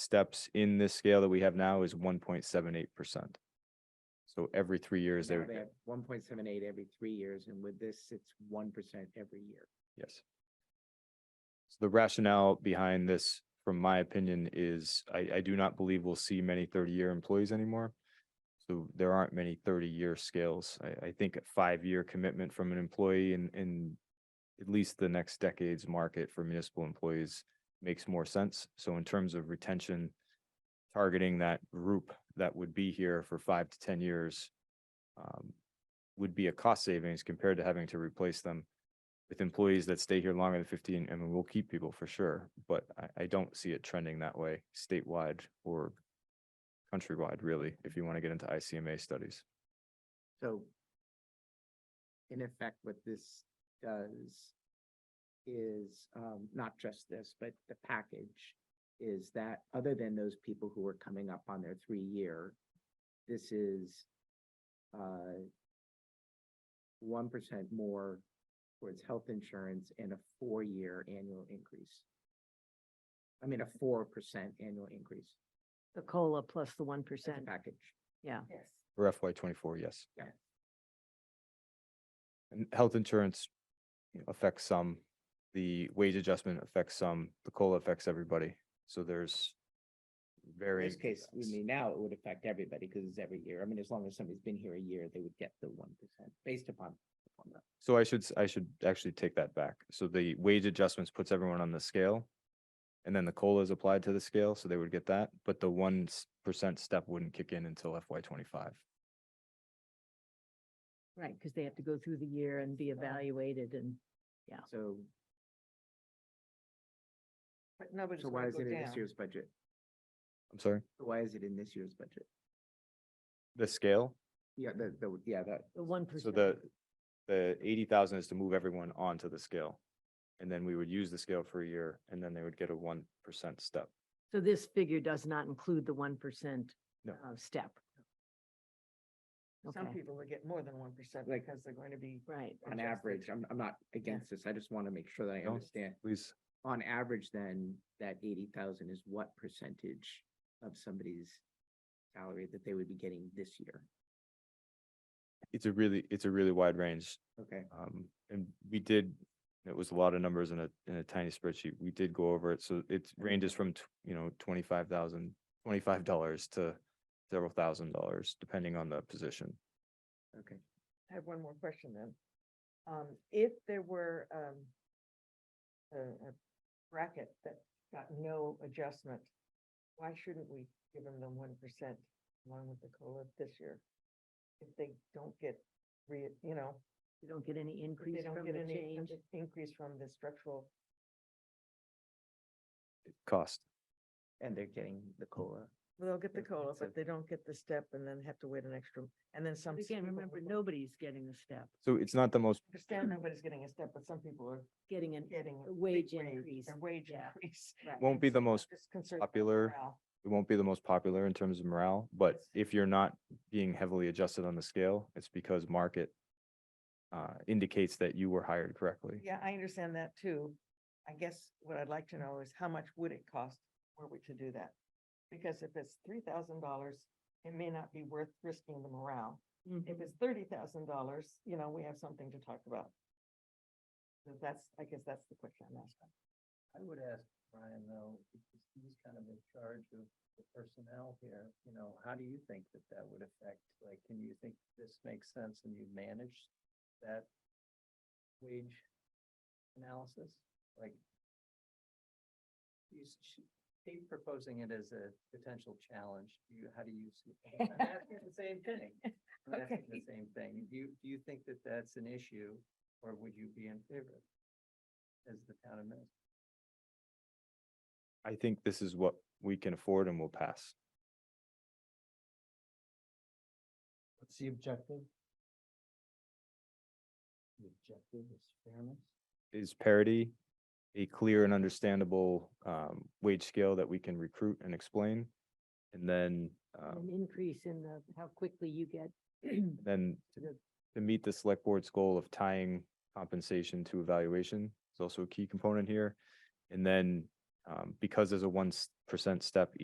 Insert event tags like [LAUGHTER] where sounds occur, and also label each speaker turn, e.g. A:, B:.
A: steps in this scale that we have now is one point seven eight percent. So every three years, they
B: Now
A: would,
B: they have one point seven eight every three years, and with this, it's one percent every year.
A: yes. So The rationale behind this, from my opinion, is I, I do not believe we'll see many thirty-year employees anymore. So there aren't many thirty-year scales. I, I think a five-year commitment from an employee in, in at least the next decade's market for municipal employees makes more sense. So in terms of retention, targeting that group that would be here for five to ten years um, would be a cost savings compared to having to replace them with employees that stay here longer than fifteen, and we'll keep people for sure, but I, I don't see it trending that way statewide or countrywide, really, if you want to get into ICMA studies.
B: So in effect, what this does is um, not just this, but the package is that other than those people who are coming up on their three-year, this is uh, one percent more towards health insurance and a four-year annual increase. I mean, a four percent annual increase
C: The COLA plus the one
B: That's the
C: percent,
B: package.
C: yeah.
D: Yes.
A: For FY twenty-four, yes.
B: Yeah.
A: And health insurance you know, affects some, the wage adjustment affects some, the COLA affects everybody, so there's
B: In
A: varying.
B: this case, I
A: impacts.
B: mean, now it would affect everybody because it's every year. I mean, as long as somebody's been here a year, they would get the one percent based upon. the formula.
A: So I should, s- I should actually take that back. So the wage adjustments puts everyone on the scale. And then the COLA is applied to the scale, so they would get that, but the one percent step wouldn't kick in until FY twenty-five.
C: Right, because they have to go through the year and be evaluated and
B: So,
D: But nobody's
B: so why
D: gonna
B: is
D: go
B: it in this
D: down.
B: year's budget?
A: I'm sorry,
B: Why is it in this year's budget?
A: the scale?
B: Yeah, the, the, yeah, that,
C: the one percent.
A: So the, the eighty thousand is to move everyone onto the scale. And then we would use the scale for a year and then they would get a one percent step.
C: So this figure does not include the one percent uh,
A: No.
C: step.
D: Some
C: Okay,
D: people will get more than one percent
B: Like-
D: because they're going to be.
C: right.
B: on
D: Adjusted.
B: average, I'm, I'm not against this. I just want to make sure that I
A: No.
B: understand.
A: Please,
B: On average, then, that eighty thousand is what percentage of somebody's salary that they would be getting this year?
A: it's a really, it's a really wide range.
B: Okay,
A: Um, and we did, it was a lot of numbers in a, in a tiny spreadsheet. We did go over it. So it ranges from, tw- you know, twenty-five thousand, twenty-five dollars to several thousand dollars, depending on the position.
B: okay.
D: I have one more question then. Um, if there were, um, a, a bracket that got no adjustment, why shouldn't we give them the one percent along with the COLA this year? If they don't get re, you know,
C: You don't get any
D: if they
C: increase
D: don't
C: from
D: get
C: the
D: any
C: change.
D: increase from the structural,
A: Cost.
B: And they're getting the COLA.
D: well, they'll get the
B: Yeah,
D: COLA,
B: it's a-
D: but they don't get the step and then have to wait an extra, and then some.
C: But Again,
D: people
C: remember,
D: will-
C: nobody's getting the step,
A: So it's not the most,
D: Understand nobody's getting a step, but some people are
C: getting an,
D: getting.
C: A
D: big
C: wage
D: raise,
C: increase,
D: A wage
C: yeah.
D: increase.
C: Right.
A: won't be the
D: I'm
A: most,
D: just concerned about
A: popular,
D: morale.
A: it won't be the most popular in terms of morale, but
D: Yes.
A: if you're not being heavily adjusted on the scale, it's because market uh, indicates that you were hired correctly.
D: Yeah, I understand that too. I guess what I'd like to know is how much would it cost were we to do that? Because if it's three thousand dollars, it may not be worth risking the morale. If
C: Mhm.
D: it's thirty thousand dollars, you know, we have something to talk about. So That's, I guess that's the question I'm asking.
E: I would ask Brian though, because he's kind of in charge of the personnel here, you know, how do you think that that would affect? Like, can you think this makes sense and you manage that wage analysis? Like, he's, she- he's proposing it as a potential challenge. Do you, how do you see? I'm asking the same thing. I'm asking
D: Okay.
E: the same thing. Do you, do you think that that's an issue or would you be in favor as the town administrator?
A: I think this is what we can afford and will pass.
E: What's the objective? The objective is fairness.
A: is parity a clear and understandable um wage scale that we can recruit and explain? And then
B: Oh.
C: an
A: um
C: increase in the, how quickly you get. [CLEARS THROAT]
A: then to- to meet the select board's goal of tying compensation to evaluation is also a key component here. And then um because there's a one percent step